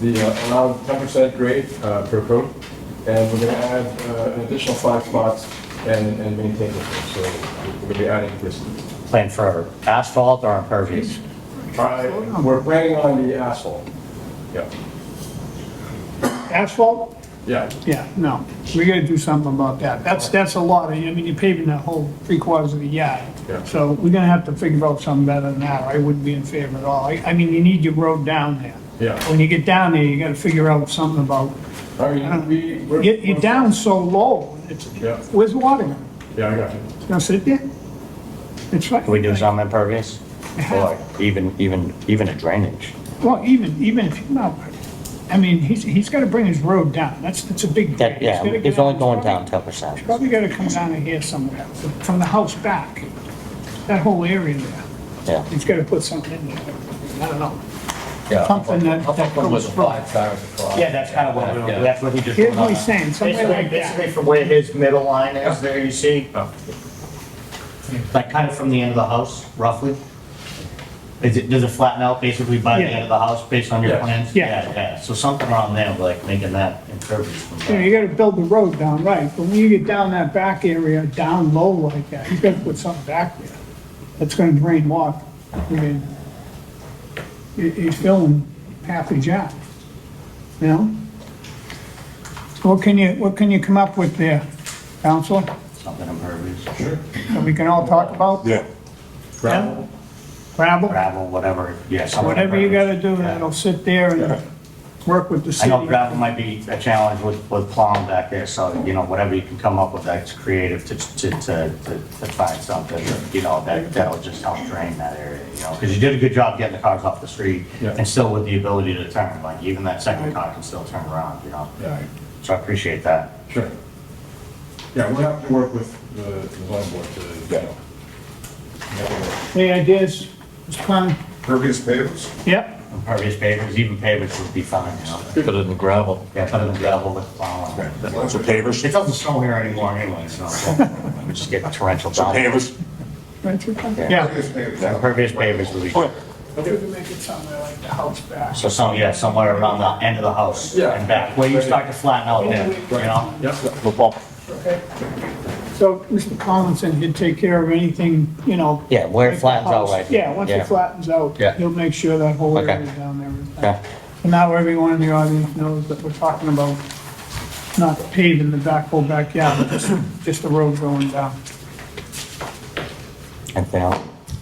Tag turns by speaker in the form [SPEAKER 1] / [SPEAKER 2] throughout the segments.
[SPEAKER 1] the uh, allowed ten percent grade uh, per coat, and we're gonna add uh, an additional five spots and, and maintain it. So we're gonna be adding this.
[SPEAKER 2] Plan for asphalt or impervious?
[SPEAKER 1] Uh, We're planning on the asphalt. Yeah,
[SPEAKER 3] Asphalt?
[SPEAKER 1] yeah.
[SPEAKER 3] Yeah, no, we gotta do something about that. That's, that's a lot, of I mean, you're paving that whole three quarters of the yard.
[SPEAKER 1] Yeah.
[SPEAKER 3] So we're gonna have to figure out something better than that, or I wouldn't be in favor at all. I, I mean, you need your road down there.
[SPEAKER 1] Yeah.
[SPEAKER 3] When you get down there, you gotta figure out something about,
[SPEAKER 1] I mean, we. we're-
[SPEAKER 3] Uh, you you're down so low, it's,
[SPEAKER 1] Yeah.
[SPEAKER 3] where's water gonna,
[SPEAKER 1] Yeah, I got you.
[SPEAKER 3] it's gonna sit there? It's right.
[SPEAKER 2] Can we do some impervious? Or like even, even, even a drainage?
[SPEAKER 3] Well, even, even if, no, I mean, he's, he's gotta bring his road down, that's, that's a big.
[SPEAKER 2] That, yeah,
[SPEAKER 3] He's gotta
[SPEAKER 2] it's
[SPEAKER 3] get
[SPEAKER 2] only
[SPEAKER 3] out.
[SPEAKER 2] going down ten percent.
[SPEAKER 3] Probably gotta come down in here somewhere, from the house back, that whole area there.
[SPEAKER 2] Yeah.
[SPEAKER 3] He's gotta put something in there, I don't know.
[SPEAKER 4] Yeah.
[SPEAKER 3] Something that-
[SPEAKER 4] I think it was
[SPEAKER 3] that goes
[SPEAKER 4] five cars across.
[SPEAKER 2] Yeah, that's kind of what,
[SPEAKER 4] Yeah.
[SPEAKER 2] that's what he just.
[SPEAKER 3] Here's what he's saying, somewhere
[SPEAKER 2] Basically,
[SPEAKER 3] like that.
[SPEAKER 2] basically from where his middle line is there, you see? Like kind of from the end of the house, roughly? Is it, does it flatten out basically by the
[SPEAKER 3] Yeah.
[SPEAKER 2] end of the house based on your
[SPEAKER 1] Yeah.
[SPEAKER 2] plans?
[SPEAKER 3] Yeah.
[SPEAKER 2] Yeah, so something around there, like making that impervious. from
[SPEAKER 3] You know,
[SPEAKER 2] that.
[SPEAKER 3] you gotta build the road down right, but when you get down that back area, down low like that, you gotta put something back there. That's gonna drain water. I mean, he- he's filling half the job, you know? What can you, what can you come up with there, Counselor,
[SPEAKER 2] Something impervious,
[SPEAKER 3] that we can all talk about?
[SPEAKER 5] Yeah,
[SPEAKER 1] Gravel.
[SPEAKER 3] Gravel,
[SPEAKER 2] gravel, whatever, yeah, something.
[SPEAKER 3] whatever you gotta
[SPEAKER 2] impervious.
[SPEAKER 3] do,
[SPEAKER 2] Yeah.
[SPEAKER 3] that'll sit there and work with the
[SPEAKER 2] I
[SPEAKER 3] city.
[SPEAKER 2] know gravel might be a challenge with, with plowing back there, so, you know, whatever you can come up with that's creative to, to, to, to to find something, you know, that, that'll just help drain that area, you know, because you did a good job getting the cars off the street
[SPEAKER 1] Yeah.
[SPEAKER 2] and still with the ability to turn, like even that second car can still turn around, you know?
[SPEAKER 1] Yeah.
[SPEAKER 2] So I appreciate that.
[SPEAKER 1] Sure. Yeah, we're gonna have to work with the the zoning board to, you know. make it work.
[SPEAKER 3] Any ideas, Mr. Klein?
[SPEAKER 5] pervious pavers.
[SPEAKER 3] Yep,
[SPEAKER 2] Impervious pavers, even pavers would be fine, you know?
[SPEAKER 4] Put it in the gravel.
[SPEAKER 2] Yeah, better than gravel with plowing.
[SPEAKER 5] Lots of pavers.
[SPEAKER 2] It doesn't snow here anymore anyway, so we just get torrential down.
[SPEAKER 5] Pavers.
[SPEAKER 3] Richard? Yeah.
[SPEAKER 2] Impervious pavers would be.
[SPEAKER 3] We can make it somewhere like the house back.
[SPEAKER 2] So some, yeah, somewhere around the end of the house and back, where you start to flatten out there, you know?
[SPEAKER 3] So Mr. Collinson he'd take care of anything, you know.
[SPEAKER 2] Yeah, where it
[SPEAKER 3] like the
[SPEAKER 2] flattens out,
[SPEAKER 3] house.
[SPEAKER 2] right?
[SPEAKER 3] Yeah, once
[SPEAKER 2] Yeah.
[SPEAKER 3] it flattens out,
[SPEAKER 2] Yeah.
[SPEAKER 3] he'll make sure that whole
[SPEAKER 2] Okay.
[SPEAKER 3] area down there is
[SPEAKER 2] Okay.
[SPEAKER 3] back. And now everyone in the audience knows that we're talking about not paving the back whole backyard, but just, just the road going down.
[SPEAKER 2] Anything else?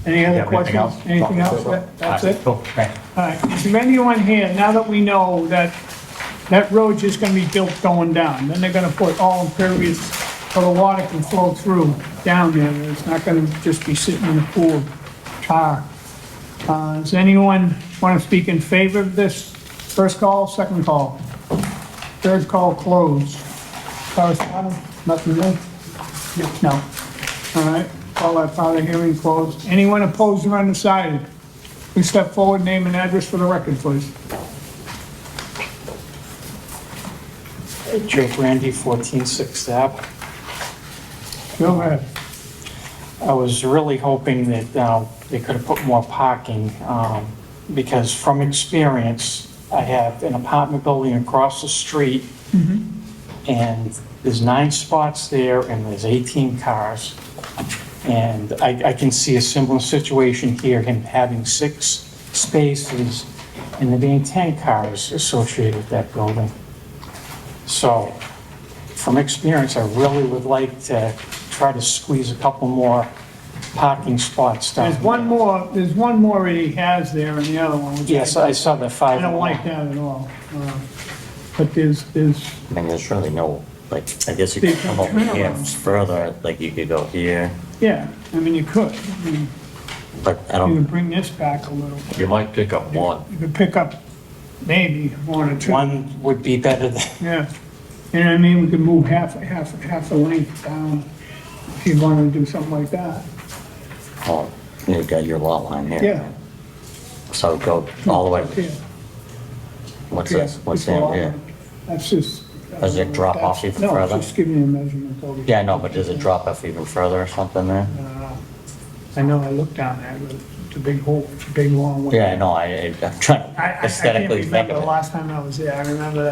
[SPEAKER 3] Any
[SPEAKER 2] Yeah,
[SPEAKER 3] other
[SPEAKER 2] anything
[SPEAKER 3] questions?
[SPEAKER 2] else?
[SPEAKER 3] Anything
[SPEAKER 2] No.
[SPEAKER 3] else? That- That's it?
[SPEAKER 2] Cool, okay.
[SPEAKER 3] All right, is there anyone here, now that we know that that road's just gonna be built going down, then they're gonna put all impervious so the water can flow through down there, and it's not gonna just be sitting in the pool of tar. Uh, does anyone wanna speak in favor of this? First call, second call? Third call closed. Correspondence, nothing new? No. All right, call that part of the hearing closed. Anyone opposed or undecided? Please step forward, name and address for the record, please.
[SPEAKER 6] Joe Brandy, 14 Sixth Ave.
[SPEAKER 3] Go ahead.
[SPEAKER 6] I was really hoping that uh, they could have put more parking, um, because from experience, I have an apartment building across the street, and there's nine spots there, and there's 18 cars. And I I can see a similar situation here, him having six spaces, and there being 10 cars associated with that building. So, from experience, I really would like to try to squeeze a couple more parking spots down.
[SPEAKER 3] There's one more, there's one more he has there and the other one, which
[SPEAKER 6] Yes, I saw the
[SPEAKER 3] I
[SPEAKER 6] five.
[SPEAKER 3] don't like that at all. Uh, But there's, there's,
[SPEAKER 2] I mean, there's really no, like, I guess you
[SPEAKER 3] Big
[SPEAKER 2] could come over here
[SPEAKER 3] turnarounds.
[SPEAKER 2] further, like you could go here,
[SPEAKER 3] yeah, I mean, you could. I mean,
[SPEAKER 2] but I
[SPEAKER 3] You
[SPEAKER 2] don't,
[SPEAKER 3] could bring this back a little.
[SPEAKER 4] You might pick up one.
[SPEAKER 3] You could pick up maybe one or two.
[SPEAKER 6] One would be better than,
[SPEAKER 3] Yeah. And I mean, we could move half, half, half the length down if you wanted to do something like that.
[SPEAKER 2] oh, you got your lot line here.
[SPEAKER 3] Yeah.
[SPEAKER 2] So go all the way,
[SPEAKER 3] Yeah.
[SPEAKER 2] what's
[SPEAKER 3] Yeah,
[SPEAKER 2] this, what's
[SPEAKER 3] it's a
[SPEAKER 2] down
[SPEAKER 3] lot.
[SPEAKER 2] here?
[SPEAKER 3] That's just.
[SPEAKER 2] Does it drop off even
[SPEAKER 3] No, it's
[SPEAKER 2] further?
[SPEAKER 3] just giving you a measurement over.
[SPEAKER 2] Yeah, I know, but does it drop off even further or something there?
[SPEAKER 3] I know, I looked down there, but It's a big hole, it's a big long way.
[SPEAKER 2] Yeah, no, I, I'm trying
[SPEAKER 3] I, I-
[SPEAKER 2] to
[SPEAKER 3] I can't
[SPEAKER 2] aesthetically think
[SPEAKER 3] remember
[SPEAKER 2] of
[SPEAKER 3] the
[SPEAKER 2] it.
[SPEAKER 3] last time I was there. I remember that